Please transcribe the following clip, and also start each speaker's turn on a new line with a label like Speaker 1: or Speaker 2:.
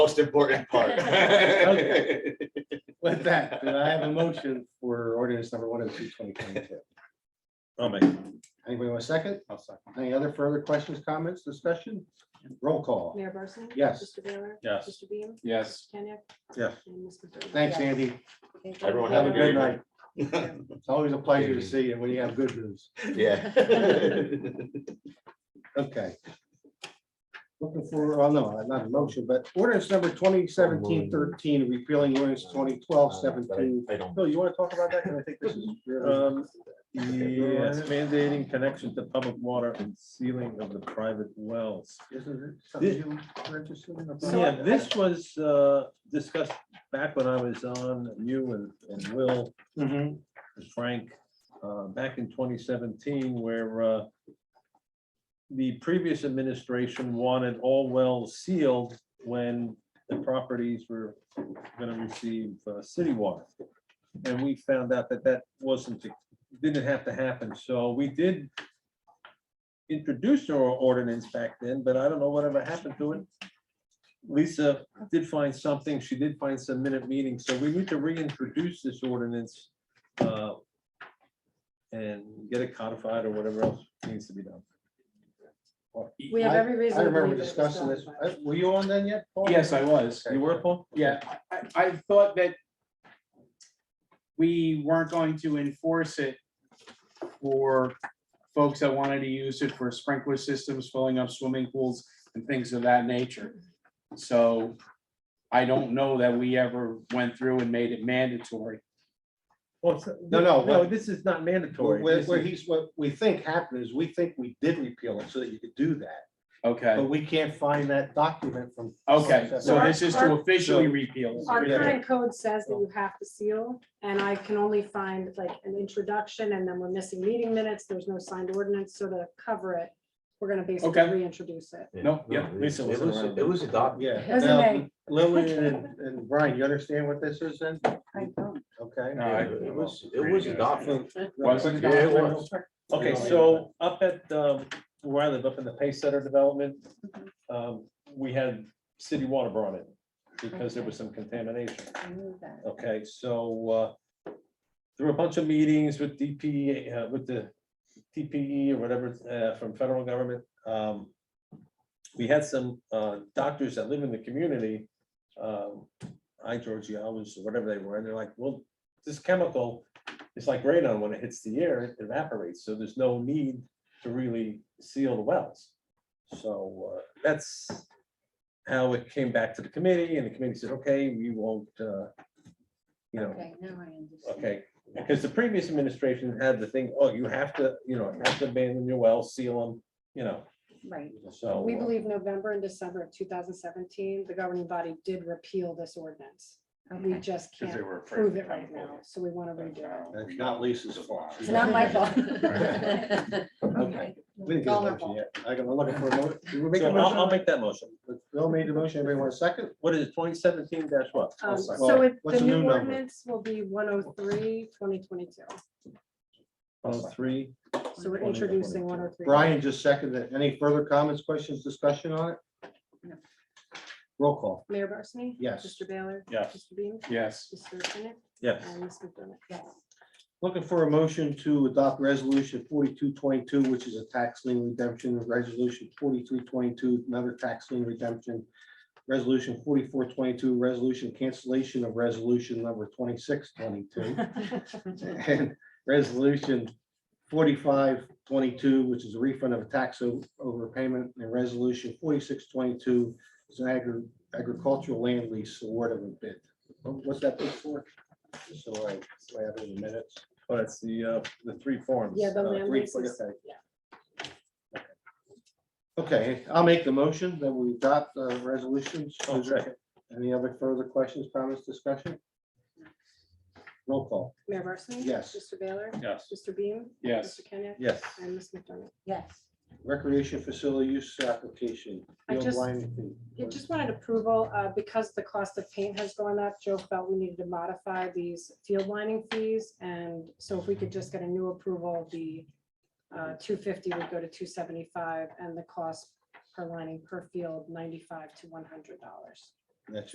Speaker 1: most important part.
Speaker 2: Okay. With that, then I have a motion for ordinance number one oh two twenty twenty-two.
Speaker 3: I'll make, it.
Speaker 2: Anybody want a second?
Speaker 4: I'll second.
Speaker 2: Any other further questions, comments, discussion? Roll call.
Speaker 5: Mayor Barsney?
Speaker 2: Yes.
Speaker 5: Mr. Baylor?
Speaker 3: yes,
Speaker 5: Mr. Beam?
Speaker 4: Yes,
Speaker 5: Kenya?
Speaker 2: Yes.
Speaker 5: And Ms. McDermott?
Speaker 2: Thanks, Andy.
Speaker 1: Everyone
Speaker 2: Have a good night.
Speaker 1: night.
Speaker 2: It's always a pleasure to see you when you have good news.
Speaker 1: Yeah.
Speaker 2: Okay. Looking for, oh no, not a motion, but ordinance number 2017 13 repealing ordinance 2012 17.
Speaker 1: I don't.
Speaker 2: Bill, you want to talk about that? 'Cause I think this is. your-
Speaker 3: um, yes, mandating connection to public water and sealing of the private wells.
Speaker 2: Isn't it something you were interested in?
Speaker 3: Yeah, this was, uh, discussed back when I was on, you and, and Will.
Speaker 2: Mhm.
Speaker 3: Frank, uh, back in twenty seventeen, where uh, the previous administration wanted all wells sealed when the properties were gonna receive uh, city water. And we found out that that wasn't, didn't have to happen, so we did introduce our ordinance back then, but I don't know whatever happened to it. Lisa did find something, she did find some minute meetings, so we need to reintroduce this ordinance uh, and get it codified or whatever else needs to be done.
Speaker 5: We have
Speaker 2: I-
Speaker 5: every reason.
Speaker 2: I
Speaker 5: to
Speaker 2: remember
Speaker 5: believe it was
Speaker 2: discussing
Speaker 5: done,
Speaker 2: this.
Speaker 5: but-
Speaker 2: Uh, Were you on then yet? Paul?
Speaker 4: yes, I was.
Speaker 3: You were, Paul?
Speaker 4: Yeah, I, I I thought that we weren't going to enforce it for folks that wanted to use it for sprinkler systems, filling up swimming pools and things of that nature. So I don't know that we ever went through and made it mandatory.
Speaker 3: Well, it's-
Speaker 2: No, no,
Speaker 3: No,
Speaker 2: what-
Speaker 3: this is not mandatory.
Speaker 2: Where,
Speaker 3: This
Speaker 2: where
Speaker 3: is-
Speaker 2: he's, what we think happened is we think we did repeal it so that you could do that,
Speaker 4: Okay,
Speaker 2: but we can't find that document from.
Speaker 4: okay, so this is to officially
Speaker 2: So-
Speaker 4: repeal. it.
Speaker 5: Our
Speaker 2: Yeah.
Speaker 5: current code says
Speaker 2: Oh.
Speaker 5: that you have to seal, and I can only find like an introduction, and then we're missing meeting minutes, there's no signed ordinance, so to cover it, we're gonna basically
Speaker 4: Okay.
Speaker 5: reintroduce it.
Speaker 4: No, yeah, Lisa
Speaker 1: It
Speaker 4: wasn't
Speaker 1: was,
Speaker 4: around.
Speaker 1: it was adopted.
Speaker 2: Yeah.
Speaker 5: It was
Speaker 2: Now,
Speaker 5: in
Speaker 2: Lillian and, and Brian, you understand what this is then?
Speaker 6: I don't.
Speaker 2: Okay.
Speaker 4: No, I-
Speaker 1: It was, it was adopted.
Speaker 4: Wasn't
Speaker 1: Yeah, it was.
Speaker 3: Okay, so up at, um, where I live, up in the Pace Center development, um, we had city water brought in because there was some contamination.
Speaker 6: I knew that.
Speaker 3: Okay, so uh, there were a bunch of meetings with DP, uh, with the TPE or whatever uh, from federal government. Um, We had some uh, doctors that live in the community, um, eye georgialis, or whatever they were, and they're like, well, this chemical is like radon. When it hits the air, it evaporates. So there's no need to really seal the wells. So uh, that's how it came back to the committee and the committee said, okay, we won't, uh, you know,
Speaker 6: Okay, now I understand.
Speaker 3: Okay, because the previous administration had the thing, oh, you have to, you know, you have to abandon your wells, seal them, you know,
Speaker 6: Right.
Speaker 4: Oh,
Speaker 3: so.
Speaker 5: We
Speaker 3: uh,
Speaker 5: believe November and December of two thousand seventeen, the governing body did repeal this ordinance. We
Speaker 6: Okay.
Speaker 5: just
Speaker 4: Because they
Speaker 5: can't
Speaker 4: were afraid
Speaker 5: prove
Speaker 4: to
Speaker 5: it right
Speaker 4: come
Speaker 5: now, so we want to redo it.
Speaker 2: That's not Lisa's fault.
Speaker 6: It's not my fault.
Speaker 2: Okay. We didn't get a motion yet. I got, I'm looking for a motion. Did we make
Speaker 3: So
Speaker 2: a
Speaker 3: I'll, I'll
Speaker 2: motion?
Speaker 3: make that motion.
Speaker 2: Bill made the motion. Everybody want a second? Oh,
Speaker 3: What is it, twenty seventeen dash what?
Speaker 5: Um,
Speaker 2: sorry.
Speaker 5: So
Speaker 2: Well,
Speaker 5: it-
Speaker 2: what's
Speaker 5: the
Speaker 2: the new
Speaker 5: new
Speaker 2: number?
Speaker 5: ordinance will be 103, 2022.
Speaker 3: Oh, three.
Speaker 5: So we're introducing 103.
Speaker 2: Brian just seconded. it. Any further comments, questions, discussion on it?
Speaker 6: No.
Speaker 2: Roll call.
Speaker 5: Mayor Barsney?
Speaker 2: Yes.
Speaker 5: Mr. Baylor?
Speaker 3: Yes.
Speaker 5: Mr. Beam?
Speaker 4: Yes,
Speaker 5: Mr. Kenneth?
Speaker 3: Yes,
Speaker 5: And Ms. McDermott? Yes.
Speaker 2: Looking for a motion to adopt resolution forty-two twenty-two, which is a tax lien redemption, resolution forty-three twenty-two, another tax lien redemption. Resolution forty-four twenty-two, resolution cancellation of resolution number twenty-six twenty-two. And resolution forty-five twenty-two, which is a refund of a tax o- overpayment, and resolution forty-six twenty-two is an agri- agricultural land lease award of a bid. What's that bid for? Just So I, so I have it in minutes.
Speaker 3: oh, that's the, uh, the three forms.
Speaker 5: Yeah, the
Speaker 3: Uh,
Speaker 5: land
Speaker 2: three,
Speaker 5: leases.
Speaker 2: okay.
Speaker 5: Yeah.
Speaker 2: Okay, I'll make the motion that we adopt the resolutions.
Speaker 3: Oh, second.
Speaker 2: Any other further questions, comments, discussion? Roll call.
Speaker 5: Mayor Barsney?
Speaker 2: Yes.
Speaker 5: Mr. Baylor?
Speaker 3: Yes,
Speaker 5: Mr. Beam?
Speaker 4: yes.
Speaker 5: Mr. Kenneth?
Speaker 3: yes.
Speaker 5: And Ms. McDermott?
Speaker 6: Yes.
Speaker 2: Recreation facility use application.
Speaker 5: I
Speaker 2: Field
Speaker 5: just-
Speaker 2: lining fee.
Speaker 5: You just wanted approval, uh, because the cost of paint has gone up, Joe felt we needed to modify these field lining fees, and so if we could just get a new approval, the uh, two fifty would go to two seventy-five, and the cost per lining per field, ninety-five to one hundred dollars.
Speaker 2: That's